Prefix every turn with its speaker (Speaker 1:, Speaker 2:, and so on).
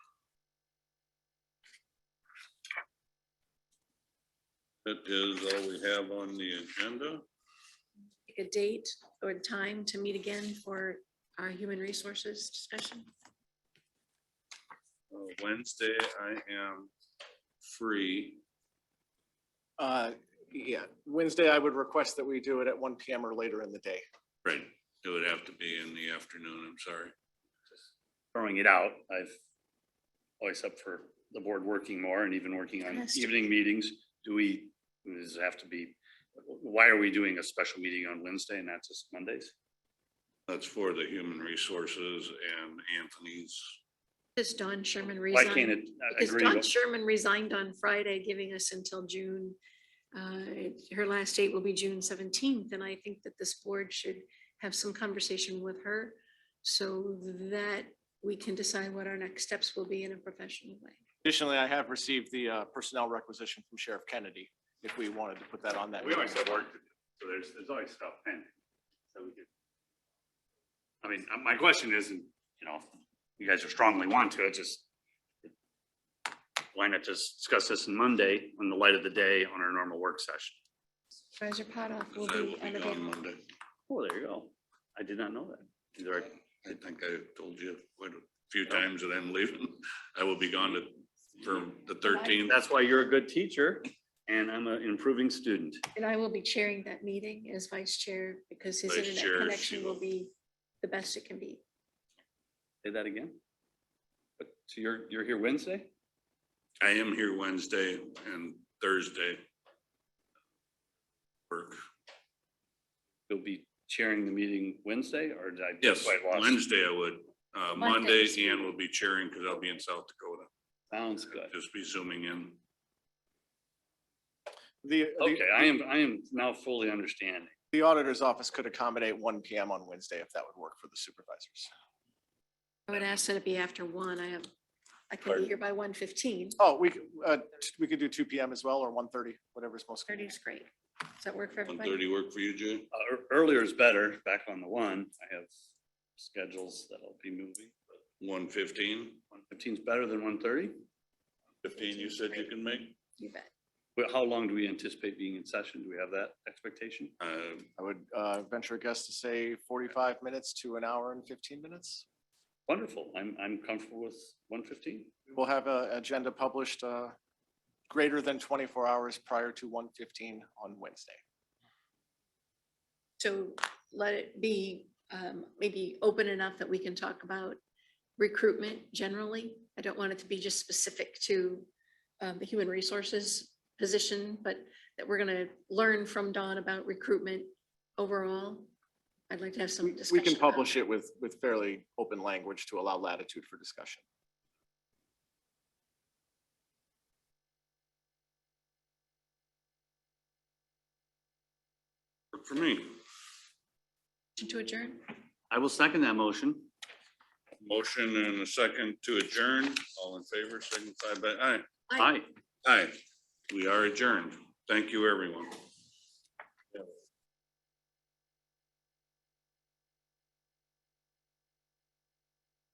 Speaker 1: That is all we have on the agenda.
Speaker 2: pick a date or time to meet again for our human resources discussion.
Speaker 1: Uh, Wednesday, I am free.
Speaker 3: Uh, yeah, Wednesday, I would request that we do it at one PM or later in the day.
Speaker 1: Right. It would have to be in the afternoon, I'm sorry.
Speaker 4: throwing it out, I've always up for the board working more and even working on
Speaker 2: Yes.
Speaker 4: evening meetings. Do we, does it have to be, why are we doing a special meeting on Wednesday and not just Mondays?
Speaker 1: That's for the human resources and Anthony's.
Speaker 2: Does Don Sherman
Speaker 4: Why can't
Speaker 2: resign?
Speaker 4: it, I
Speaker 2: Because
Speaker 4: agree,
Speaker 2: Don
Speaker 4: but
Speaker 2: Sherman resigned on Friday, giving us until June. uh, Her last date will be June seventeenth, and I think that this board should have some conversation with her so that we can decide what our next steps will be in a professional way.
Speaker 3: Additionally, I have received the uh, personnel requisition from Sheriff Kennedy, if we wanted to put that on that.
Speaker 4: we always
Speaker 3: meeting.
Speaker 4: have work to do, so there's, there's always stuff pending. So we could. I mean, uh, my question isn't, you know, you guys are strongly want to, it just. Why not just discuss this on Monday in the light of the day on our normal work session?
Speaker 2: Supervisor Potoff will
Speaker 1: I will
Speaker 2: be
Speaker 1: be gone
Speaker 2: unavailable.
Speaker 1: Monday.
Speaker 4: Oh, there you go. I did not know that. Either I-
Speaker 1: I think I told you quite a few times that I'm leaving. I will be gone to- for the thirteenth.
Speaker 4: That's why you're a good teacher and I'm an improving student.
Speaker 2: And I will be chairing that meeting as vice chair because his
Speaker 1: Vice chair,
Speaker 2: internet
Speaker 1: she
Speaker 2: connection will
Speaker 1: will-
Speaker 2: be the best it can be.
Speaker 4: Say that again. But so you're, you're here Wednesday?
Speaker 1: I am here Wednesday and Thursday. Work.
Speaker 4: You'll be chairing the meeting Wednesday or did I?
Speaker 1: Yes,
Speaker 4: quite lost?
Speaker 1: Wednesday I would. Uh, Monday,
Speaker 2: Monday's
Speaker 1: Ian
Speaker 2: fine.
Speaker 1: will be chairing because I'll be in South Dakota.
Speaker 4: Sounds good.
Speaker 1: Just be zooming in.
Speaker 3: The, the-
Speaker 4: Okay, I am, I am now fully understanding.
Speaker 3: the auditor's office could accommodate one PM on Wednesday if that would work for the supervisors.
Speaker 2: I would ask that it be after one. I have, I could be
Speaker 1: Pardon?
Speaker 2: here by one fifteen.
Speaker 3: Oh, we, could, uh, t- we could do two PM as well or one thirty, whatever's most.
Speaker 2: Thirty
Speaker 3: convenient.
Speaker 2: is great. Does that work for
Speaker 1: One
Speaker 2: everybody?
Speaker 1: thirty work for you, Jay?
Speaker 4: Uh, ear- Earlier is better, back on the one. I have schedules that I'll be moving.
Speaker 1: One fifteen?
Speaker 4: One fifteen is better than one thirty?
Speaker 1: Fifteen you said you can make?
Speaker 2: You bet.
Speaker 4: But how long do we anticipate being in session? Do we have that expectation?
Speaker 1: Uh,
Speaker 3: I would, uh, venture a guess to say forty-five minutes to an hour and fifteen minutes.
Speaker 4: Wonderful. I'm, I'm comfortable with one fifteen.
Speaker 3: We'll have a agenda published, uh, greater than twenty-four hours prior to one fifteen on Wednesday.
Speaker 2: So let it be um, maybe open enough that we can talk about recruitment generally. I don't want it to be just specific to um, the human resources position, but that we're gonna learn from Dawn about recruitment overall. I'd like to have some
Speaker 3: We-
Speaker 2: discussion.
Speaker 3: We can
Speaker 2: about
Speaker 3: publish it with, with fairly open language to allow latitude for discussion.
Speaker 1: work for me.
Speaker 2: Motion To adjourn?
Speaker 4: I will second that motion.
Speaker 1: Motion and a second to adjourn. All in favor, signify by aye.
Speaker 4: Aye.
Speaker 1: Aye. We are adjourned. Thank you, everyone.